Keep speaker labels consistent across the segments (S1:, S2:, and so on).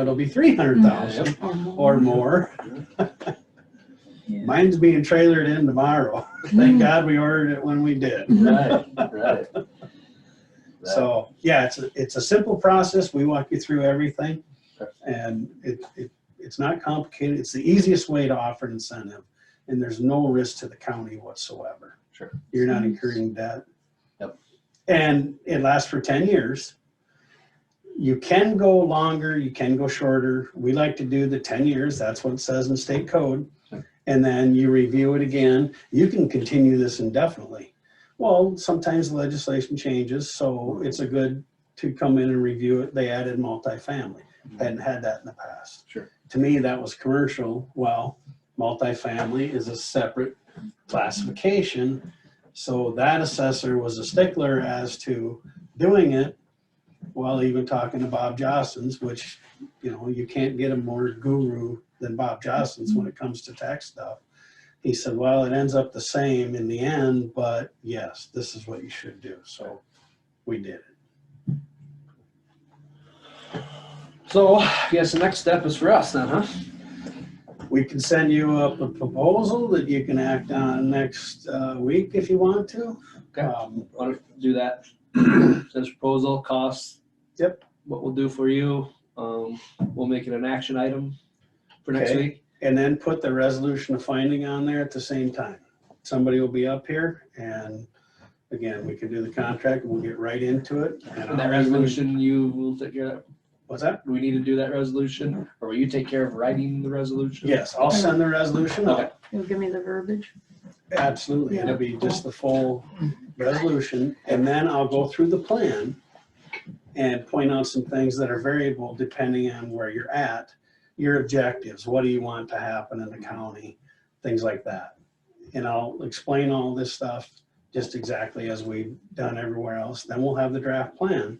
S1: it'll be three hundred thousand
S2: Mm.
S1: or more. Mine's being trailered in tomorrow.
S2: Mm.
S1: Thank God we ordered it when we did.
S3: Right, right.
S1: So, yeah, it's, a it's a simple process. We walk you through everything. And it, it, it's not complicated. It's the easiest way to offer an incentive. And there's no risk to the county whatsoever.
S3: Sure.
S1: You're not incurring debt.
S3: Yep.
S1: And it lasts for ten years. You can go longer, you can go shorter. We like to do the ten years. That's what it says in state code.
S3: Sure.
S1: And then you review it again. You can continue this indefinitely. Well, sometimes legislation changes, so it's a good to come in and review it. They added multifamily. Hadn't had that in the past.
S3: Mm-hmm. Sure.
S1: To me, that was commercial. Well, multifamily is a separate classification. So that assessor was a stickler as to doing it while even talking to Bob Jostens, which, you know, you can't get a more guru than Bob Jostens when it comes to tax stuff. He said, well, it ends up the same in the end, but yes, this is what you should do. So we did it.
S3: So I guess the next step is for us then, huh?
S1: We can send you up a proposal that you can act on next uh, week if you want to.
S3: Okay.
S1: Um,
S3: Want to do that? Says proposal, costs.
S1: Yep.
S3: What we'll do for you, um, we'll make it an action item for next
S1: Okay.
S3: week.
S1: And then put the resolution of finding on there at the same time. Somebody will be up here and again, we can do the contract, we'll get right into it.
S3: And that
S1: I'll-
S3: resolution, you will take care of. that.
S1: What's that?
S3: Do we need to do that resolution? Or will you take care of writing the resolution?
S1: Yes, I'll send the resolution
S3: Okay.
S1: out.
S2: You'll give me the verbiage?
S1: Absolutely. It'll be just the full resolution. And then I'll go through the plan and point out some things that are variable depending on where you're at, your objectives, what do you want to happen in the county, things like that. And I'll explain all this stuff just exactly as we've done everywhere else. Then we'll have the draft plan.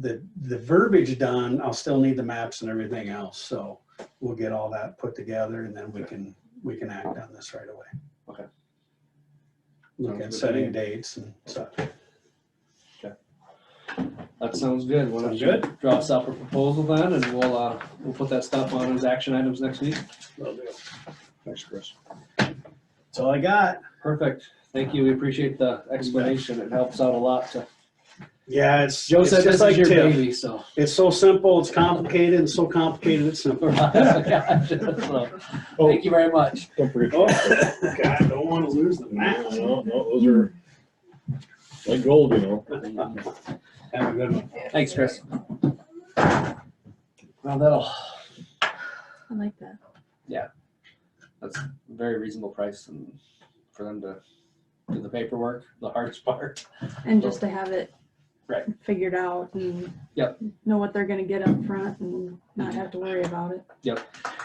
S1: The, the verbiage done, I'll still need the maps and everything else. So we'll get all that put together and then we can, we can act on this right away.
S3: Okay.
S1: Look
S3: Sounds
S1: at
S3: good to
S1: setting
S3: me.
S1: dates and such.
S3: That sounds good. Why don't
S1: Sounds
S3: you Draw us up a proposal then and we'll, uh, we'll put that stuff on as action items next week. Thanks, Chris.
S1: That's all I got.
S3: Perfect. Thank you. We appreciate the explanation. It helps out a lot to.
S1: Yeah, it's.
S3: Joe
S1: it's
S3: said
S1: just
S3: this is your
S1: TIF.
S3: baby, so.
S1: It's so simple, it's complicated, and so complicated, it's simple.
S3: So, Thank you very much.
S4: Don't forget.
S1: Oh, God, don't wanna lose the
S4: No,
S1: mask.
S4: no, no, those are like gold, you know.
S1: Have a good one.
S3: Thanks, Chris. Well, that'll,
S2: I like that.
S3: that's a very reasonable price and for them to do the paperwork, the hardest part.
S2: And just to have it
S3: Right.
S2: figured out and
S3: Yep.
S2: know what they're gonna get up front and not have to worry about it.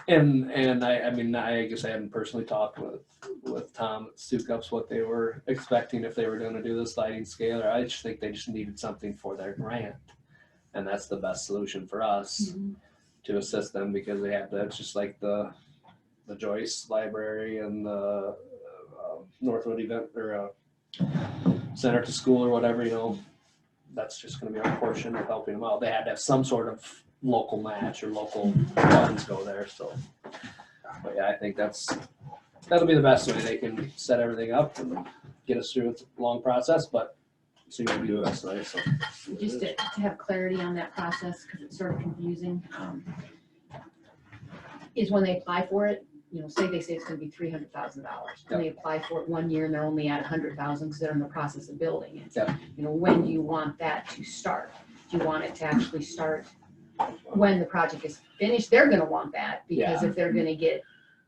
S3: And, and I, I mean, I guess I haven't personally talked with, with Tom at Stukups, what they were expecting if they were gonna do the sliding scale, or I just think they just needed something for their grant. And that's the best solution for us. to assist them because they have that's just like the the Joyce Library and the uh, Northwood event or uh, center to school or whatever you know that's just going to be our portion of helping them out they had to have some sort of local match or local funds go there so but yeah I think that's that'll be the best way they can set everything up and get us through it's a long process but see what we do best way so
S5: Just to, to have clarity on that process, because it's sort of confusing, um, is when they apply for it, you know, say they say it's gonna be three hundred thousand dollars, and they apply for it one year and they're only at a hundred thousand, because they're in the process of building it.
S3: Yep.
S5: You know, when do you want that to start? Do you want it to actually start when the project is finished? They're gonna want that, because if they're gonna get,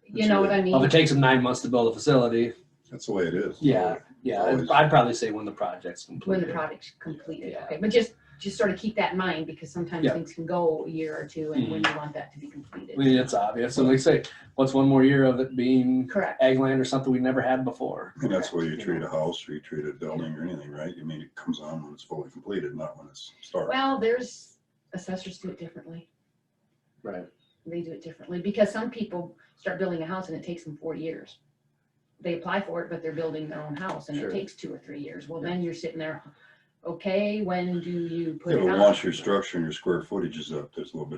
S5: you know what
S3: Well,
S5: I
S3: if
S5: mean?
S3: it takes them nine months to build a facility
S6: That's the way it is.
S3: Yeah, yeah, I'd,
S6: Always.
S3: I'd probably say when the project's
S5: When the
S3: completed.
S5: project's completed,
S3: Yeah.
S5: okay, but just, just sort of keep that in mind, because sometimes
S3: Yeah.
S5: things can go a year or two, and when
S3: Mm-hmm.
S5: you want that to be completed.
S3: I mean, it's obvious, so like say, what's one more year of it being
S5: Correct.
S3: ag land or something we never had before?
S6: And that's the way you treat a house or you treat a building or anything, right? You mean, it comes on when it's fully completed, not when it's started.
S5: Well, there's assessors do it differently.
S3: Right.
S5: They do it differently because some people start building a house and it takes them four years. They apply for it, but they're building their own house and
S3: Sure.
S5: it takes two or three years. Well, then you're sitting there, okay, when do you put
S6: You
S5: it
S6: know,
S5: on?
S6: once your structure and your square footage is up, there's a little bit